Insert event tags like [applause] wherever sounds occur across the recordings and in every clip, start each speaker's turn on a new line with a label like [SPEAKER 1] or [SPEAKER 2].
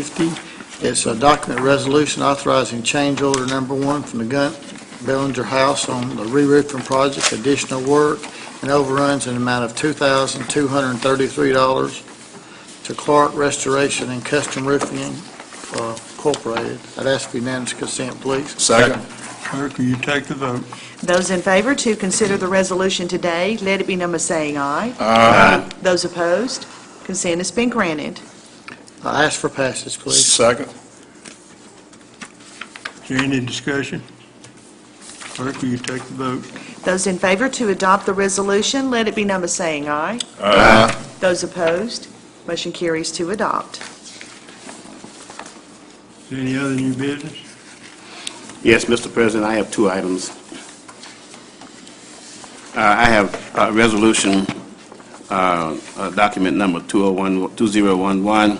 [SPEAKER 1] 450. It's a document resolution authorizing change order number one from the Gunt Bellinger House on the re-roofing project, additional work and overruns in the amount of $2,233 to Clark Restoration and Custom Roofing uh, Incorporated. I'd ask for unanimous consent, please.
[SPEAKER 2] Second.
[SPEAKER 3] Clerk, will you take the vote?
[SPEAKER 4] Those in favor to consider the resolution today, let it be number saying aye.
[SPEAKER 2] Aye.
[SPEAKER 4] Those opposed, consent has been granted.
[SPEAKER 1] I ask for passage, please.
[SPEAKER 2] Second.
[SPEAKER 3] Is there any discussion? Clerk, will you take the vote?
[SPEAKER 4] Those in favor to adopt the resolution, let it be number saying aye.
[SPEAKER 2] Aye.
[SPEAKER 4] Those opposed, motion carries to adopt.
[SPEAKER 3] Is there any other new business?
[SPEAKER 5] Yes, Mr. President, I have two items. Uh, I have uh, Resolution, uh, uh, document number 201 2011,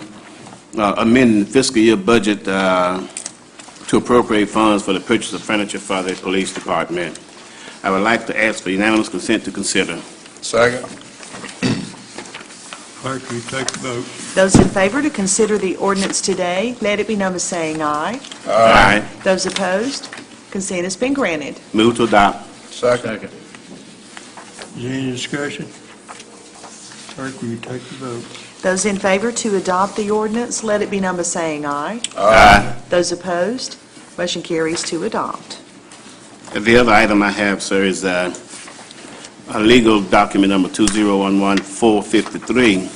[SPEAKER 5] uh, amending fiscal year budget uh, to appropriate funds for the purchase of furniture for the police department. I would like to ask for unanimous consent to consider.
[SPEAKER 2] Second.
[SPEAKER 3] Clerk, will you take the vote?
[SPEAKER 4] Those in favor to consider the ordinance today, let it be number saying aye.
[SPEAKER 5] Aye.
[SPEAKER 4] Those opposed, consent has been granted.
[SPEAKER 5] Move to adopt.
[SPEAKER 2] Second.
[SPEAKER 3] Is there any discussion? Clerk, will you take the vote?
[SPEAKER 4] Those in favor to adopt the ordinance, let it be number saying aye.
[SPEAKER 5] Aye.
[SPEAKER 4] Those opposed, motion carries to adopt.
[SPEAKER 5] The other item I have, sir, is uh, a legal document number 2011453.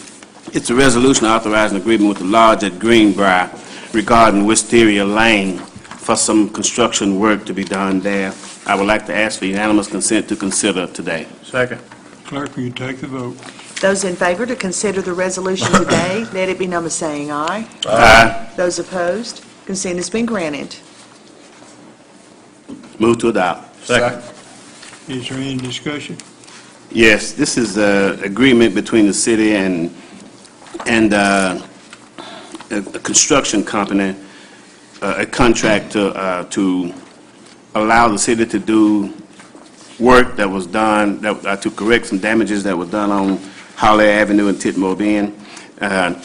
[SPEAKER 5] It's a resolution authorizing agreement with the lodge at Greenbrier regarding Wisteria Lane for some construction work to be done there. I would like to ask for unanimous consent to consider today.
[SPEAKER 2] Second.
[SPEAKER 3] Clerk, will you take the vote?
[SPEAKER 4] Those in favor to consider the resolution today, let it be number saying aye.
[SPEAKER 5] Aye.
[SPEAKER 4] Those opposed, consent has been granted.
[SPEAKER 5] Move to adopt.
[SPEAKER 2] Second.
[SPEAKER 3] Is there any discussion?
[SPEAKER 5] Yes, this is an agreement between the city and, and uh, a a construction company, uh, a contract to, uh, to allow the city to do work that was done, that uh, to correct some damages that were done on Holly Avenue and Titmore Bend. Uh,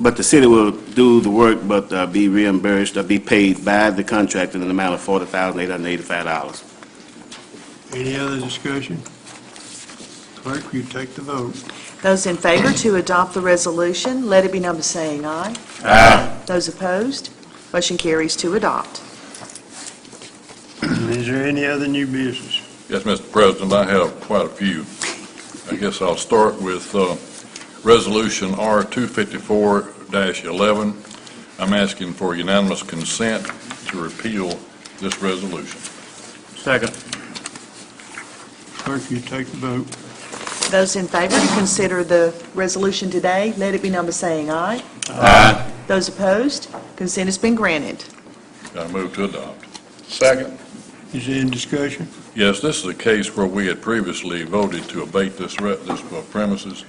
[SPEAKER 5] But the city will do the work, but uh, be reimbursed, or be paid by the contractor in an amount of $40,885.
[SPEAKER 3] Any other discussion? Clerk, will you take the vote? [clears throat]
[SPEAKER 4] Those in favor to adopt the resolution, let it be number saying aye. Aye. Those opposed, motion carries to adopt.
[SPEAKER 3] Is there any other new business?
[SPEAKER 6] Yes, Mr. President, I have quite a few. I guess I'll start with uh, Resolution R 254-11. I'm asking for unanimous consent to repeal this resolution.
[SPEAKER 2] Second.
[SPEAKER 3] Clerk, will you take the vote?
[SPEAKER 4] Those in favor to consider the resolution today, let it be number saying aye. Aye. Those opposed, consent has been granted.
[SPEAKER 6] I move to adopt.
[SPEAKER 2] Second.
[SPEAKER 3] Is there any discussion?
[SPEAKER 6] Yes, this is a case where we had previously voted to abate this re- this premises,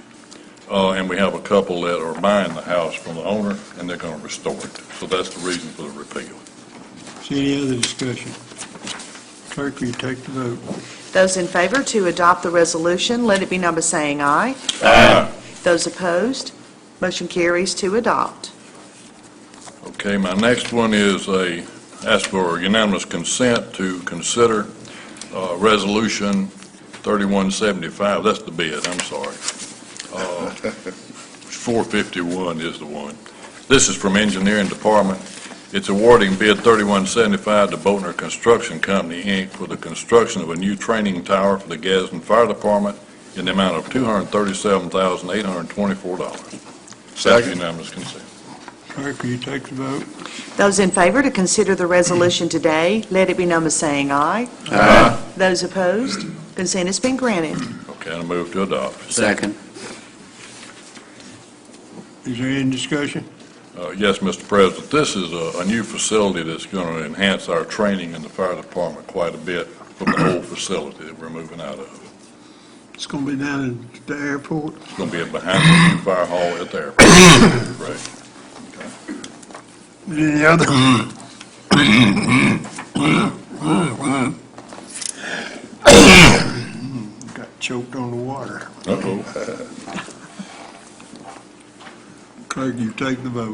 [SPEAKER 6] uh, and we have a couple that are buying the house from the owner, and they're going to restore it. So that's the reason for the repeal.
[SPEAKER 3] Is there any other discussion? Clerk, will you take the vote?
[SPEAKER 4] Those in favor to adopt the resolution, let it be number saying aye.
[SPEAKER 6] Aye.
[SPEAKER 4] Those opposed, motion carries to adopt.
[SPEAKER 6] Okay, my next one is a, ask for unanimous consent to consider uh, Resolution 3175, that's the bid, I'm sorry. Uh, 451 is the one. This is from Engineering Department. It's awarding bid 3175 to Boatner Construction Company, Inc. for the construction of a new training tower for the Gadsden Fire Department in the amount of $237,824. That's
[SPEAKER 2] Second.
[SPEAKER 6] unanimous consent.
[SPEAKER 3] Clerk, will you take the vote?
[SPEAKER 4] Those in favor to consider the resolution today, let it be number saying aye.
[SPEAKER 5] Aye.
[SPEAKER 4] Those opposed, consent has been granted.
[SPEAKER 6] Okay, I move to adopt.
[SPEAKER 5] Second.
[SPEAKER 3] Is there any discussion?
[SPEAKER 6] Uh, Yes, Mr. President, this is a a new facility that's going to enhance our training in the fire department quite a bit from the old facility that we're moving out of.
[SPEAKER 3] It's going to be down at the airport.
[SPEAKER 6] It's going to be behind the new fire hall at the airport. [coughs] Right.
[SPEAKER 3] Any other? Got choked on the water.
[SPEAKER 6] Uh-oh.
[SPEAKER 3] Clerk, you take the vote.